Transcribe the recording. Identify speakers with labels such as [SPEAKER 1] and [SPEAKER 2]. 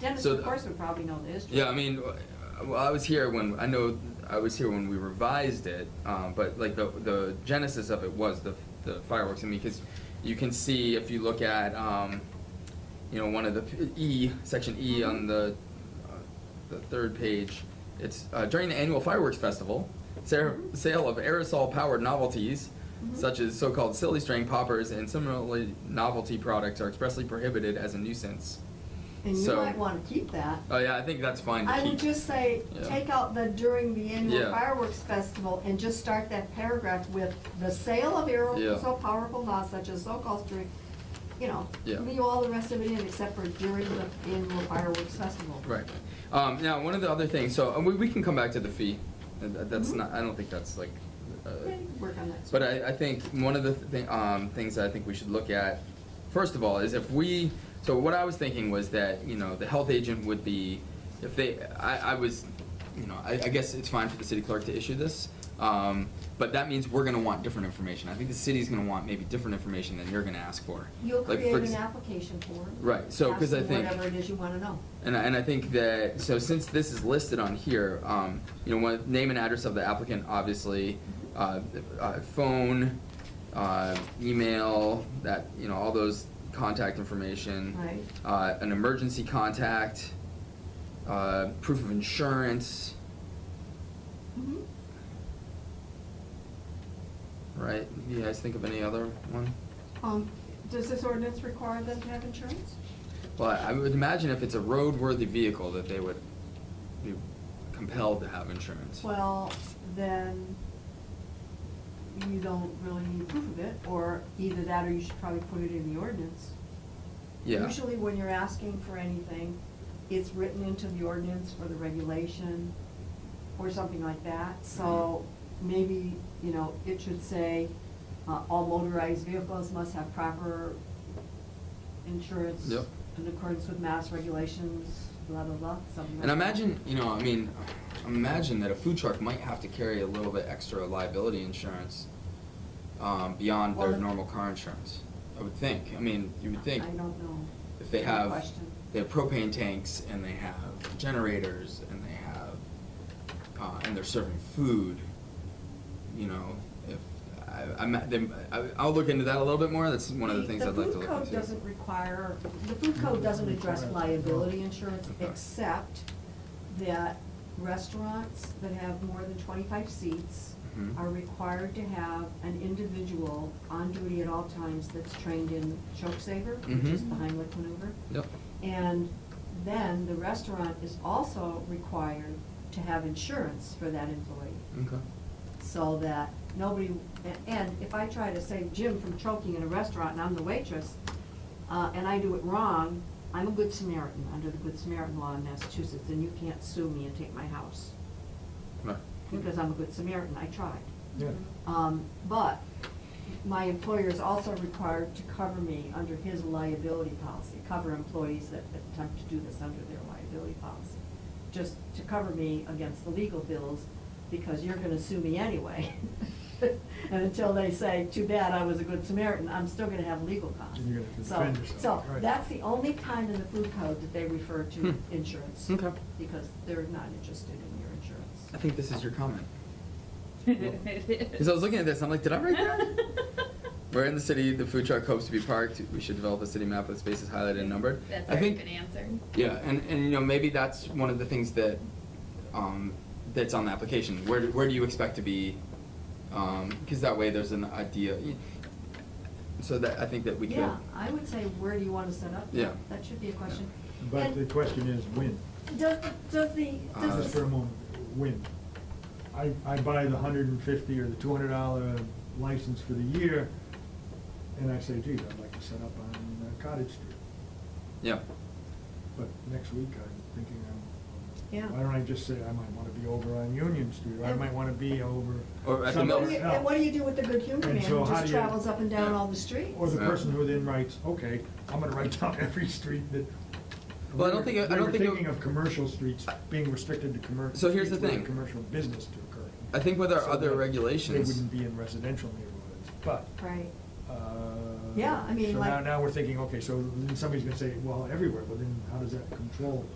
[SPEAKER 1] Dennis,
[SPEAKER 2] So
[SPEAKER 1] of
[SPEAKER 2] the-
[SPEAKER 1] course, would probably know the history.
[SPEAKER 2] Yeah, I mean, uh, well, I was here when I know I was here when we revised it, um, but like the the genesis of it was the the fireworks. I mean, because you can see if you look at um, you know one of the p- E section E on the uh, the third page, it's uh, during the annual fireworks festival, sa-
[SPEAKER 1] Mhm.
[SPEAKER 2] sale of aerosol powered novelties.
[SPEAKER 1] Mhm.
[SPEAKER 2] Such as so-called silly string poppers and similarly novelty products are expressly prohibited as a nuisance.
[SPEAKER 1] And you
[SPEAKER 2] so-
[SPEAKER 1] might wanna keep that.
[SPEAKER 2] Oh yeah, I think that's fine to
[SPEAKER 1] I
[SPEAKER 2] keep.
[SPEAKER 1] would just say,
[SPEAKER 2] Yeah.
[SPEAKER 1] take out the during the annual
[SPEAKER 2] Yeah.
[SPEAKER 1] fireworks festival and just start that paragraph with the sale of arrows
[SPEAKER 2] Yeah.
[SPEAKER 1] so powerful not such as so-called during, you know,
[SPEAKER 2] Yeah.
[SPEAKER 1] leave all the rest of it in except for during the annual fireworks festival.
[SPEAKER 2] Right. Um, now, one of the other things, so uh, we, we can come back to the fee. Uh, that- That's
[SPEAKER 1] Mhm.
[SPEAKER 2] not, I don't think that's like, uh,
[SPEAKER 1] Okay, Work on that.
[SPEAKER 2] but I, I think one of the th- um, things that I think we should look at, first of all, is if we, so what I was thinking was that, you know, the health agent would be, if they, I, I was, you know, I, I guess it's fine for the city clerk to issue this, um, but that means we're gonna want different information. I think the city's gonna want maybe different information than you're gonna ask for.
[SPEAKER 1] You'll
[SPEAKER 2] Like, for
[SPEAKER 1] create
[SPEAKER 2] ex-
[SPEAKER 1] an application form.
[SPEAKER 2] Right, so, 'cause I
[SPEAKER 1] asking
[SPEAKER 2] think-
[SPEAKER 1] Whatever it is you wanna know.
[SPEAKER 2] And I, and I think that, so since this is listed on here, um, you know, one, name and address of the applicant, obviously, uh, uh, phone, uh, email, that, you know, all those contact information.
[SPEAKER 1] Right.
[SPEAKER 2] Uh, an emergency contact, uh, proof of insurance,
[SPEAKER 1] Mhm.
[SPEAKER 2] right? You guys think of any other one?
[SPEAKER 1] Um, does this ordinance require them to have insurance?
[SPEAKER 2] Well, I would imagine if it's a roadworthy vehicle that they would be compelled to have insurance.
[SPEAKER 1] Well, then you don't really need proof of it, or either that or you should probably put it in the ordinance.
[SPEAKER 2] Yeah.
[SPEAKER 1] Usually when you're asking for anything, it's written into the ordinance or the regulation or something like that. So maybe, you know, it should say, uh, all motorized vehicles must have proper insurance
[SPEAKER 2] Yep.
[SPEAKER 1] in accordance with mass regulations, blah, blah, blah, something like
[SPEAKER 2] And
[SPEAKER 1] that.
[SPEAKER 2] imagine, you know, I mean, imagine that a food truck might have to carry a little bit extra liability insurance um, beyond their
[SPEAKER 1] Well-
[SPEAKER 2] normal car insurance. I would think. I mean, you would think
[SPEAKER 1] I don't know.
[SPEAKER 2] if they
[SPEAKER 1] Good
[SPEAKER 2] have
[SPEAKER 1] question.
[SPEAKER 2] they have propane tanks and they have generators and they have uh, and they're serving food. You know, if I, I'm, then I, I'll look into that a little bit more. That's one of the things I'd like to look
[SPEAKER 1] The food code
[SPEAKER 2] into.
[SPEAKER 1] doesn't require, the food code doesn't address liability insurance,
[SPEAKER 2] Mm-hmm. Okay.
[SPEAKER 1] except that restaurants that have more than twenty-five seats
[SPEAKER 2] Mhm.
[SPEAKER 1] are required to have an individual on duty at all times that's trained in choke saver, which is
[SPEAKER 2] Mhm.
[SPEAKER 1] the Heimlich maneuver.
[SPEAKER 2] Yep.
[SPEAKER 1] And then the restaurant is also required to have insurance for that employee
[SPEAKER 2] Okay.
[SPEAKER 1] so that nobody, a- and if I try to save Jim from choking in a restaurant and I'm the waitress, uh, and I do it wrong, I'm a good Samaritan, under the Good Samaritan law in Massachusetts, and you can't sue me and take my house,
[SPEAKER 2] Right.
[SPEAKER 1] because I'm a good Samaritan, I tried.
[SPEAKER 3] Yeah.
[SPEAKER 1] Um, but my employer is also required to cover me under his liability policy, cover employees that attempt to do this under their liability policy. Just to cover me against the legal bills, because you're gonna sue me anyway. And until they say, too bad, I was a good Samaritan, I'm still gonna have legal costs.
[SPEAKER 3] And you're gonna have to
[SPEAKER 1] So-
[SPEAKER 3] defend yourself,
[SPEAKER 1] So,
[SPEAKER 3] right.
[SPEAKER 1] that's the only time in the food code that they refer to
[SPEAKER 2] Hmm.
[SPEAKER 1] insurance.
[SPEAKER 2] Okay.
[SPEAKER 1] Because they're not interested in your
[SPEAKER 2] I
[SPEAKER 1] insurance.
[SPEAKER 2] think this is your comment.
[SPEAKER 4] It
[SPEAKER 2] Because
[SPEAKER 4] is.
[SPEAKER 2] I was looking at this, I'm like, did I write that? Where in the city, the food truck hopes to be parked. We should develop a city map with spaces highlighted and numbered.
[SPEAKER 4] That's
[SPEAKER 2] I
[SPEAKER 4] already
[SPEAKER 2] think,
[SPEAKER 4] been answered.
[SPEAKER 2] yeah, and, and you know maybe that's one of the things that um, that's on the application. Where do, where do you expect to be? Because that way there's an idea. So that I think that we could.
[SPEAKER 1] Yeah, I would say, where do you want to set up?
[SPEAKER 2] Yeah.
[SPEAKER 1] That should be a question.
[SPEAKER 3] But
[SPEAKER 1] And
[SPEAKER 3] the question is, when?
[SPEAKER 1] Does, the- does the,
[SPEAKER 2] Uh,
[SPEAKER 3] Just
[SPEAKER 1] does
[SPEAKER 3] for a
[SPEAKER 1] the,
[SPEAKER 3] moment, when? I, I buy the hundred and fifty or the two hundred dollar license for the year, and I say, geez, I'd like to set up on uh, Cottage Street.
[SPEAKER 2] Yeah.
[SPEAKER 3] But next week, I'm thinking,
[SPEAKER 1] Yeah.
[SPEAKER 3] I'm, why don't I just say, I might wanna be over on Union Street, or I
[SPEAKER 1] And-
[SPEAKER 3] might wanna be over
[SPEAKER 2] Or at the
[SPEAKER 1] and
[SPEAKER 3] somewhere
[SPEAKER 1] what
[SPEAKER 2] mills.
[SPEAKER 1] do you-
[SPEAKER 3] else.
[SPEAKER 1] and what do you do with the good humor
[SPEAKER 3] And
[SPEAKER 1] man
[SPEAKER 3] so
[SPEAKER 1] who
[SPEAKER 3] how
[SPEAKER 1] just
[SPEAKER 3] do you-
[SPEAKER 1] travels up and down all the streets?
[SPEAKER 3] Or the
[SPEAKER 2] Yeah.
[SPEAKER 3] person who then writes, okay, I'm gonna write down every street that.
[SPEAKER 2] Well, I don't think- I
[SPEAKER 3] They
[SPEAKER 2] don't
[SPEAKER 3] were
[SPEAKER 2] think it-
[SPEAKER 3] thinking of commercial streets being restricted to commer.
[SPEAKER 2] So here's the
[SPEAKER 3] streets where
[SPEAKER 2] thing.
[SPEAKER 3] Commercial business to occur.
[SPEAKER 2] I think with our
[SPEAKER 3] So
[SPEAKER 2] other
[SPEAKER 3] that
[SPEAKER 2] regulations-
[SPEAKER 3] They wouldn't be in residential neighborhoods, but,
[SPEAKER 1] Right,
[SPEAKER 3] uh.
[SPEAKER 1] Yeah, I mean,
[SPEAKER 3] So
[SPEAKER 1] like-
[SPEAKER 3] now, now we're thinking, okay, so then somebody's gonna say, well, everywhere, but then how does that control?